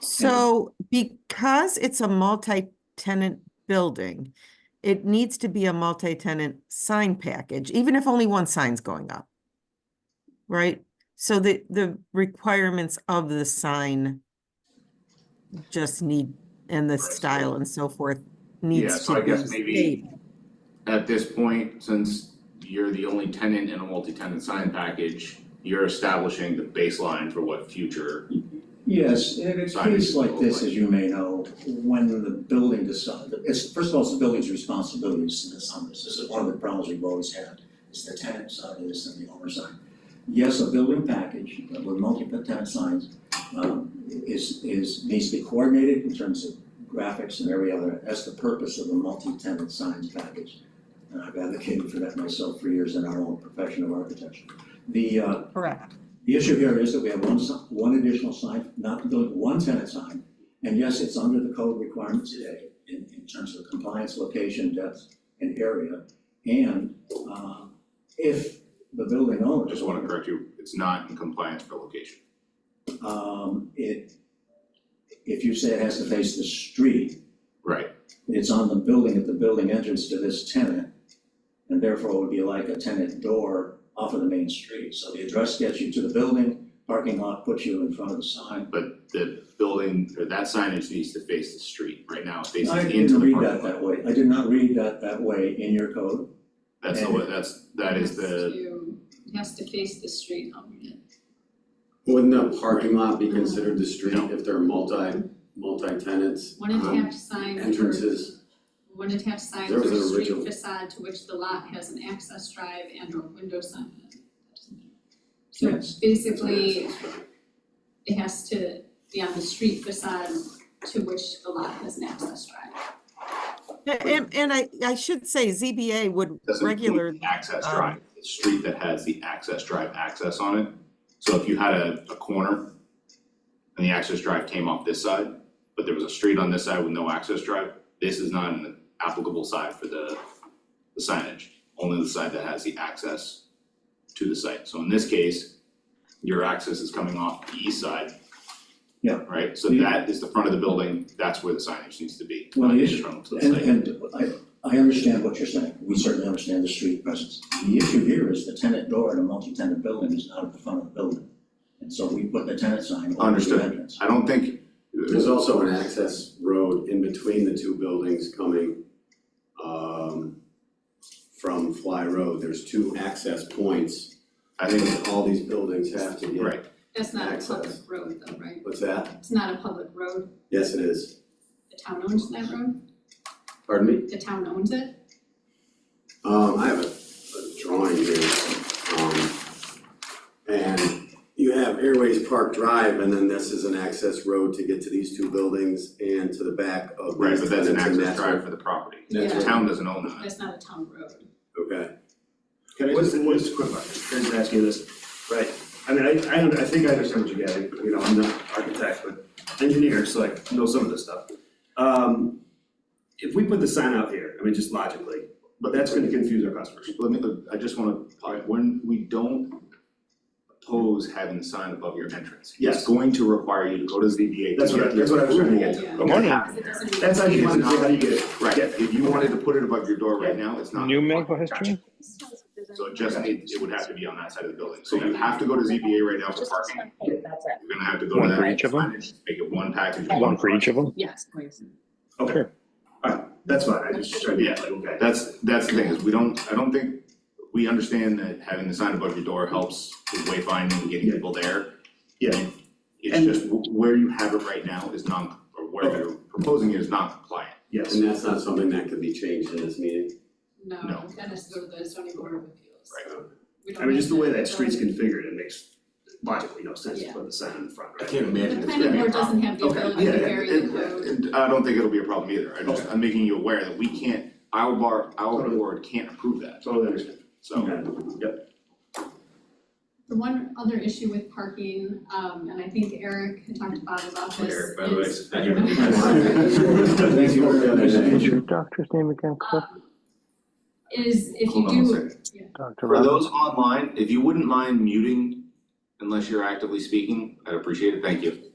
So because it's a multi-tenant building, it needs to be a multi-tenant sign package, even if only one sign's going up. Right? So the, the requirements of the sign just need, and the style and so forth Yeah, needs so to I guess be maybe- stated. At this point, since you're the only tenant in a multi-tenant sign package, you're establishing the baseline for what future, Yes, in a Sign case is like this, local. as you may know, when the building decides, it's, first of all, it's the building's responsibility to decide this. This is one of the problems we've always had, is the tenant side of this and the owner side. Yes, a building package with multi-tenant signs, um, is, is, needs to be coordinated in terms of graphics and every other, that's the purpose of a multi-tenant signs package. And I've advocated for that myself for years in our own profession of architecture. The, uh, Correct. the issue here is that we have one, si- one additional sign, not the one tenant sign. And yes, it's under the code requirement today in, in terms of compliance, location, depth, and area. And, uh, if the building owner. I just wanna correct you, it's not in compliance for location. Um, it, if you say it has to face the street, Right, it's on the building at the building entrance to this tenant. And therefore it would be like a tenant door off of the main street. So the address gets you to the building, parking lot puts you in front of the sign. but the building, or that signage needs to face the street, right now it faces I into didn't the read parking that lot. that way, I did not read that that way in your code. That's the way, that's, that is the, It has to face the street, um, yeah. Wouldn't a parking lot be considered the street No. if there are multi, multi-tenants? one Um, Uh-huh. attached sign. for- entrances. One attached sign There for was a an street original- facade to which the lot has an access drive and or window sign. So Yes. basically, it has to be on the street facade to which the lot has an access drive. And, and I, I should say ZBA would doesn't regular, include the access um, drive, the street that has the access drive access on it. So if you had a, a corner and the access drive came off this side, but there was a street on this side with no access drive, this is not an applicable side for the, the signage, only the side that has the access to the site. So in this case, your access is coming off the east side. Yeah. Right, so Yeah. that is the front of the building, that's where the signage needs to be, Well, not the the issue- internal to the site. And and I I understand what you're saying, we certainly understand the street presence. The issue here is the tenant door in a multi-tenant building is not at the front of the building. And so we put the tenant sign over the Understood. entrance. I don't think, There's also an access road in between the two buildings coming um from Fly Road, there's two access points. I I think think all these buildings have to Right. get, That's not a public Access. road though, right? what's that? It's not a public road. Yes, it is, The town owns that road. pardon me? The town owns it. Um, I have a, a drawing here, um, and you have Airways Park Drive, and then this is an access road to get to these two buildings and to the back of Right, these but that's an tenants, and access that's drive for the property. That's The right. town doesn't own that. That's not a town road. what- Okay, Can I just, just a quick, can I just ask you this? Right, I mean, I, I, under- I think I understand what you're getting, you know, I'm not an architect, but engineer, so I know some of this stuff. Um, if we put the sign out here, I mean, just logically, but that's gonna confuse our customers. Let me, I just wanna, when we don't oppose having the sign above your entrance. Yes. It's going to require you to go to ZBA. That's to what I- get that's what I was trying to get the to. approval I'm wondering- have Because it there. doesn't. That's how you It's get it, not- how you get it. Right, if you wanted to put it above your door right now, it's not. New medical history? So it just needs, it would have to be on that side of the building. So you have to go to ZBA right now for parking. That's it. You're gonna have to go to One that. for each of them? signage, Make it one package. One for each of them? Yes, please. Okay, Sure. alright, that's fine, I just tried to get like, okay. That's, that's the thing, is we don't, I don't think, we understand that having the sign above your door helps with wayfinding and getting people there. Yeah. It's And- just wh- where you have it right now is non, or where Okay. you're proposing it is non compliant. Yes, and that's not something that could be changed in this meeting. No, No. that has to go to the zoning board of appeals. Right. We don't I mean, have just the way that street's building- configured, it makes logically no sense to Yeah. put the sign in the front, I right? can't imagine it's The planning gonna be a board doesn't problem. have the Okay, ability to yeah, vary the code. And I don't think it'll be a problem either, I just, I'm making you aware that we can't, our bar, our Totally. board can't approve that, Totally understand. so. Yep, The one other issue with parking, um, and I think Eric had talked about his office is. Eric, by the way, it's not your Thank you for the other What's day. your doctor's name again, Cliff? um, Is if you Hold on one do, second. Dr. For Rob? those online, if you wouldn't mind muting unless you're actively speaking, I'd appreciate it, thank you.